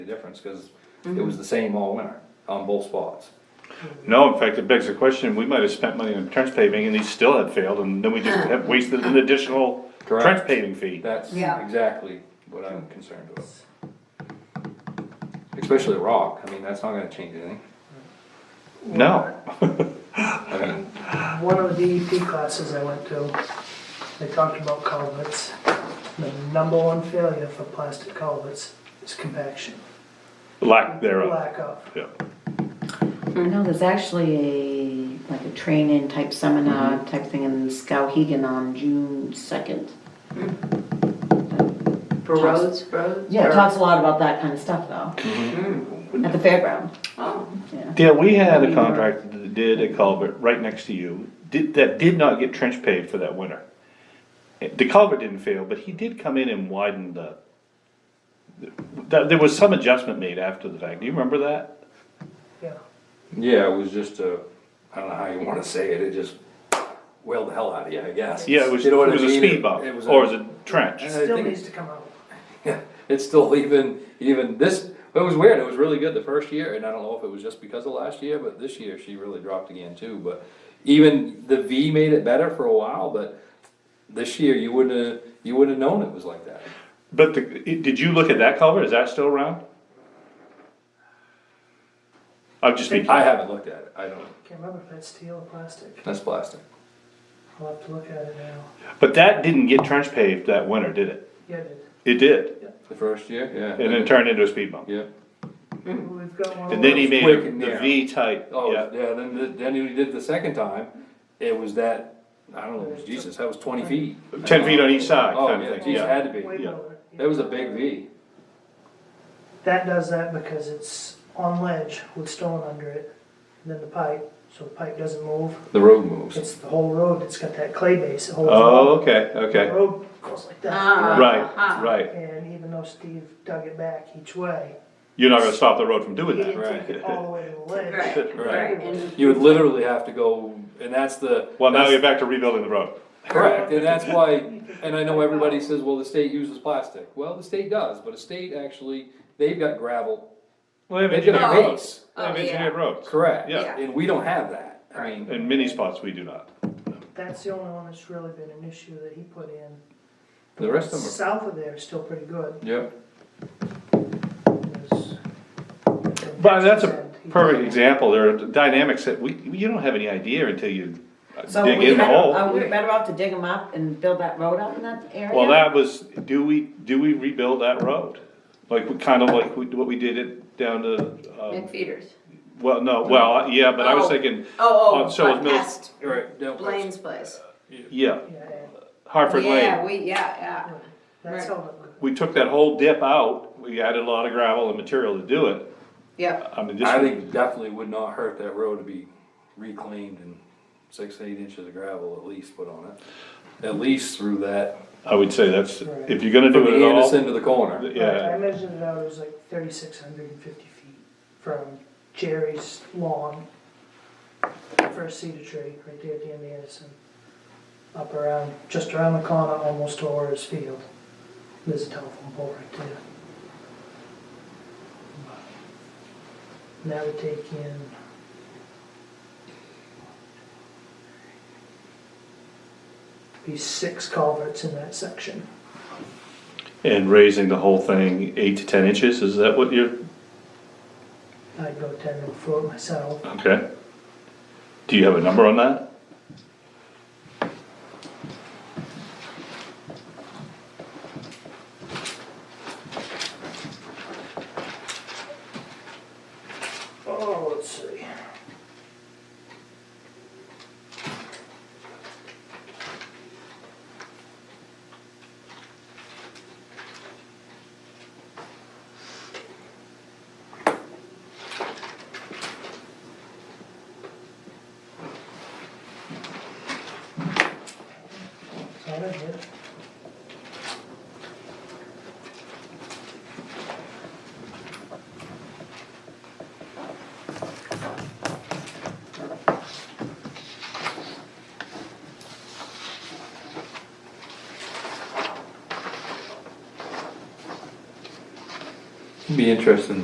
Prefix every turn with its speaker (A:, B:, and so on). A: the difference, cause it was the same all winter on both spots.
B: No, in fact, it begs the question, we might have spent money on trench paving and these still had failed and then we just have wasted an additional
A: Correct.
B: trench paving fee.
A: That's
C: Yeah.
A: exactly what I'm concerned with. Especially rock, I mean, that's not gonna change anything.
B: No,
A: I mean,
D: One of the DEP classes I went to, they talked about culverts. The number one failure for plastic culverts is compaction,
B: lack thereof,
D: lack of.
B: yeah.
E: I know there's actually a, like a training type
B: Mm-hmm.
E: seminar type thing in Skowhegan on June second.
C: For roads, roads?
E: Yeah, it
C: Or-
E: talks a lot about that kind of stuff though.
B: Mm-hmm.
E: At the fairground,
C: Oh,
E: yeah.
B: Dale, we had a contractor that did a culvert right next to you, did, that did not get trench paved for that winter. The culvert didn't fail, but he did come in and widen the, that, there was some adjustment made after the fact, do you remember that?
D: Yeah,
A: yeah, it was just a, I don't know how you wanna say it, it just wailed the hell out of you, I guess.
B: Yeah, it was,
A: You
B: it
A: know what I
B: was a
A: mean?
B: speed bump,
A: was
B: or it was a trench.
A: And I
D: still
A: think-
D: needs to come out.
A: Yeah, it's still even, even this, it was weird, it was really good the first year, and I don't know if it was just because of last year, but this year she really dropped again too, but even the V made it better for a while, but this year you wouldn't have, you wouldn't have known it was like that.
B: But the, it- did you look at that culvert? Is that still around? I'm just thinking,
A: I haven't looked at it, I don't,
D: Can't remember if that's steel or plastic.
A: that's plastic.
D: I'll have to look at it now.
B: but that didn't get trench paved that winter, did it?
D: Yeah, it-
B: It did,
A: The first year, yeah.
B: and then turned into a speed bump.
A: Yeah, Hmm.
D: we've got one.
B: And then he
D: of
B: made
A: Quick and
B: the
A: narrow.
B: V type,
A: oh,
B: yeah.
A: yeah, then, the- then when he did the second time, it was that, I don't know, it was Jesus, that was twenty feet.
B: Ten feet on each side,
A: Oh,
B: kind
A: yeah,
B: of thing,
A: geez,
B: yeah.
A: had to
D: those. Way
A: be,
B: yeah.
D: lower, yeah.
A: that was a big V.
D: That does that because it's on ledge with stone under it, and then the pipe, so the pipe doesn't move.
A: The road moves.
D: It's the whole road, it's got that clay base, it holds. it
B: Oh,
D: up.
B: okay,
D: The
B: okay,
D: road goes like that.
C: ah,
B: right,
C: ah.
B: right.
D: And even though Steve dug it back each way,
B: You're not gonna stop the road from
D: he
B: doing that,
D: didn't
B: right?
D: take it all the way to the ledge.
C: Right,
A: Right.
C: right. And
A: You would literally have to go, and that's the.
B: Well, now
A: that's-
B: you're back to rebuilding the road.
A: Correct, and that's why, and I know everybody says, well, the state uses plastic. Well, the state does, but the state actually, they've got gravel.
B: Well, they have
A: They've got
B: engineered
C: Oh.
B: roads,
A: roads.
B: they have
C: Oh, yeah.
B: engineered roads.
A: Correct.
B: Yeah.
A: And we don't have that. I mean,
B: In many spots, we do not.
D: That's the only one that's really been an issue that he put in.
A: the rest of them
D: South of there is still pretty good.
A: are. Yep.
D: There's-
B: But that's a
D: He-
B: perfect example, there are dynamics that we, you don't have any idea until you
E: So
B: dig
E: we
B: in the
E: better-
B: hole.
E: Are we better off to dig them up and build that road out in that area?
B: Well, that was, do we, do we rebuild that road? Like, we kind of like we- what we did it down to, um,
C: McFeeters.
B: well, no, well, yeah, but I was
C: Oh.
B: thinking,
C: Oh,
B: Uh,
C: oh,
B: so it's
C: but
B: Mil-
C: past
A: Right. down past-
C: Blaine's place.
B: yeah,
D: Yeah,
B: Hartford
C: Yeah,
B: Lane.
C: we, yeah, yeah.
D: That's held up good.
B: We took that whole dip out, we added a lot of gravel and material to do it.
C: Yep,
B: I mean,
A: I
B: this,
A: think it definitely would not hurt that road to be reclaimed and six, eight inches of gravel at least put on it. At least through that,
B: I would say that's, if you're gonna
A: from
B: do it at all,
A: Anderson to the corner.
D: I
B: yeah,
D: measured it out, it was like thirty-six hundred and fifty feet from Jerry's lawn, first cedar tree, right there at the end of Anderson, up around, just around the corner, almost to Orr's field. There's a telephone pole right there. And that would take in. Be six culverts in that section.
B: and raising the whole thing eight to ten inches, is that what you're,
D: I'd go ten and four myself.
B: okay? Do you have a number on that?
D: Oh, let's see. So I don't get it.
A: Be interesting